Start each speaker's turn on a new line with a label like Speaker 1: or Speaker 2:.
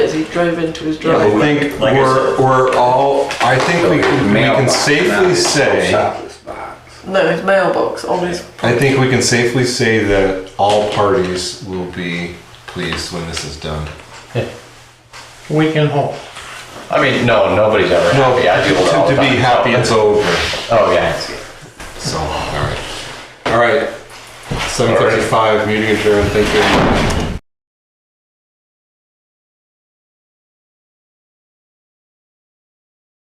Speaker 1: as he drove into his
Speaker 2: Yeah,
Speaker 1: driveway.
Speaker 3: I
Speaker 2: but we-
Speaker 3: think
Speaker 2: like I
Speaker 3: we're, we're all, I think we can, we can
Speaker 4: Mailbox, not
Speaker 3: safely
Speaker 4: his
Speaker 3: say,
Speaker 4: shopless box.
Speaker 1: No, his mailbox on his.
Speaker 3: I think we can safely say that all parties will be pleased when this is done.
Speaker 5: We can hope.
Speaker 2: I mean, no, nobody's ever
Speaker 3: No,
Speaker 2: happy. I
Speaker 3: to
Speaker 2: do it all
Speaker 3: to
Speaker 2: the
Speaker 3: be
Speaker 2: time.
Speaker 3: happy, it's over.
Speaker 2: Oh, yeah.
Speaker 3: So, all right. All right. 7:35, meeting adjourned. Thank you.